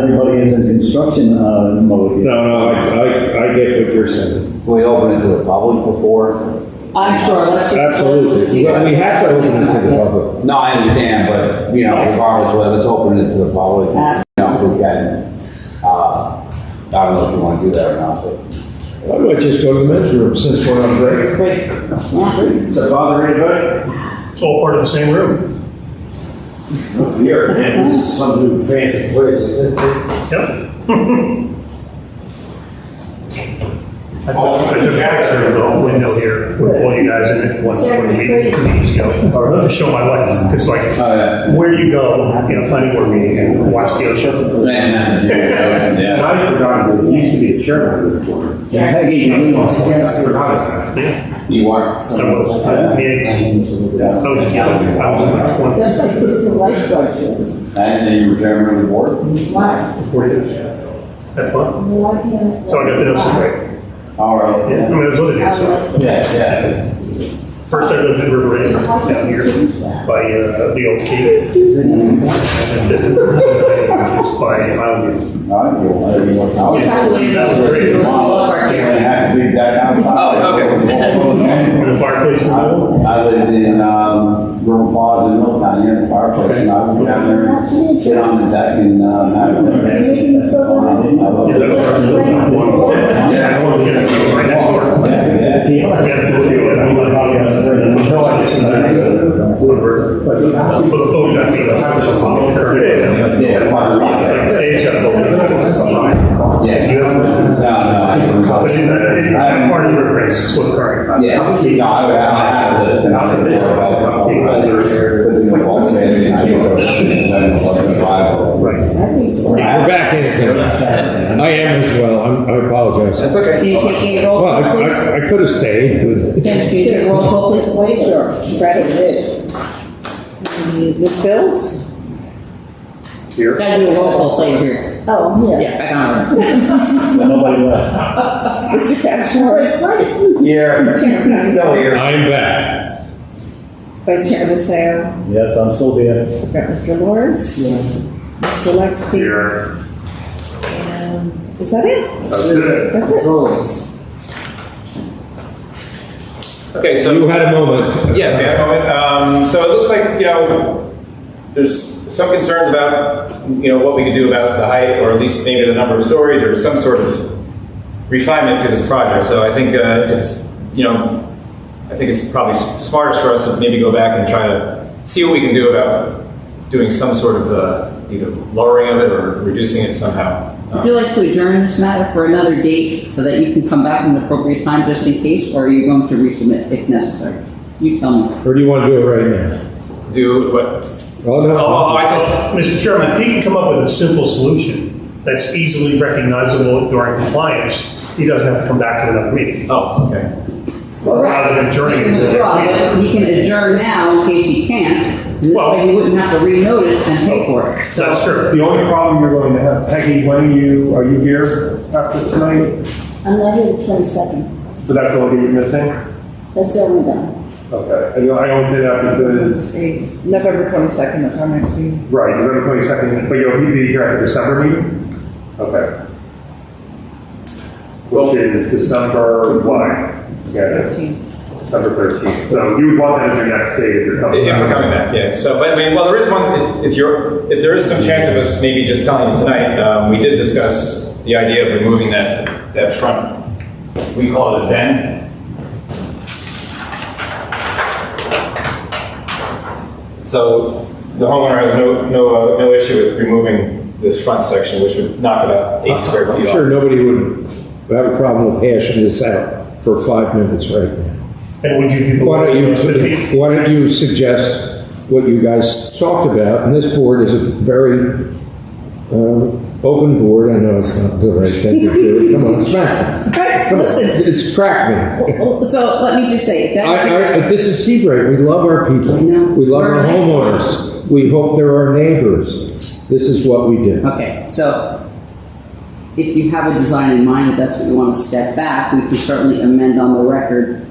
Everybody is in construction uh, mode. No, no, I, I, I get what you're saying. We opened it to the public before? I'm sure, let's just. let's just Absolutely. see. Well, we have to open it to the public. No, I understand, but, you know, Yes. regardless, well, let's open it to the public, you know, if we can. Uh, I don't know if you want to do that or not, but. I might just go to the men's room since we're on break. Great. Does that bother anybody? It's all part of the same room. Here, man, this is some new fancy place. Yep. I took I took a picture of the window here with all you guys in it one, one meeting, two meetings ago, or to show my life, because like, Oh, yeah. where you go, you know, planning board meetings, and watch the ocean. Yeah. I forgot, there used to be a chair on this corner. Peggy, you Yeah. You are. I was, I mean, I was, young. I was in my twenties. And then you were chairman of the board? Forty years. That's fun. So I got the notes right. All right. Yeah, I mean, I was living here, so. Yeah, First I lived in River Ridge, down here, by, uh, the old cave. And then, just by Mountain yeah. All right, you want to do what now? It's not the way That was great. it was all over You here. have to leave that outside. Oh, View. The fireplace in the middle. I lived in, um, Rural Plaza, Milltown, near the fireplace, and I would go down there and sit on the deck and, um, have a drink. Yeah, I want to get it to my next door. I got to go through it. I was like, oh, yes, it's in the hotel. I just- But the phone got me, I was just on the curve. Yeah, that's why I was Like, the like, stage got a little- Yeah. You No, know? no, I didn't. But it's not, it's not part of your race, it's what current. Yeah, obviously, no, I would have to have the number of people about the company, but there's a wall saying, I think, then plus five. Right. We're back in it. now. I am as well. I'm, I apologize. That's okay. Can you take a roll Well, I, call, please? I, I could have stayed, but Can you take a roll call, please? Brad Pitts. Ms. Bills? Gotta do a roll call, so you're here. Oh, yeah. Yeah, back on. Nobody left. Mr. Castro? Here, Chairman still Isaac? here. I'm back. Vice Chairman Sale? Yes, I'm still there. Mr. Lawrence? Yes. Mr. Lexi? Here. And Is that it? That's it. That's it? Okay, so You had a moment. Yes, we have a moment. Um, so it looks like, you know, there's some concerns about, you know, what we could do about the height, or at least maybe the number of stories, or some sort of refinement to this project. So I think uh, it's, you know, I think it's probably s- smartest for us to maybe go back and try to see what we can do about doing some sort of uh, either lowering of it or reducing it somehow. Would Um, you like to adjourn this matter for another date so that you can come back in an appropriate time just in case, or are you going to resubmit if necessary? You tell me. Or do you want to do it right now? do what? Oh, Oh, no. oh, I thought. Mr. Chairman, if he can come up with a simple solution that's easily recognizable during compliance, he doesn't have to come back to another meeting. Oh, okay. Rather than adjourning. He can withdraw, but he can adjourn now in case he can't, and this Well- way he wouldn't have to renotice and pay for it. So That's true. The only problem you're going to have, Peggy, when you, are you here after tonight? I'm not here the twenty-second, But that's all you're missing? that's the only day. Okay. I know- I only say that because, It's November twenty-second, that's our next meeting. right, November twenty-second, but you'll be here at the December meeting? Okay. Which is December what? Yeah, it's December thirteenth. So you would want that as your next date if you're coming. If we're coming back, yeah. So, but I mean, well, there is one, if, if you're, if there is some chance of us maybe just telling you tonight, um, we did discuss the idea of removing that, that front, we call it a den. So the homeowner has no, no, uh, no issue with removing this front section, which would knock about eight square I'm feet sure off. nobody would have a problem with hashing this out for five minutes right now. And would you be? Why don't Fifty? you, why don't you suggest what you guys talked about, and this board is a very um, open board, I know it's not the right thing to do, come on, smack me. Okay, Come on, listen, It's crack me. so let me just say, I, that's. I, this is Seabright, we love our people, I know. we love We're our a nice homeowners, we hope they're our neighbors, this is what we do. Okay, so if you have a design in mind, if that's what you want to step back, we can certainly amend on the record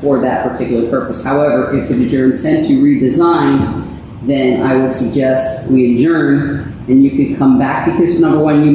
for that particular purpose. However, if it is your intent to redesign, then I would suggest we adjourn And you could come back because number one, you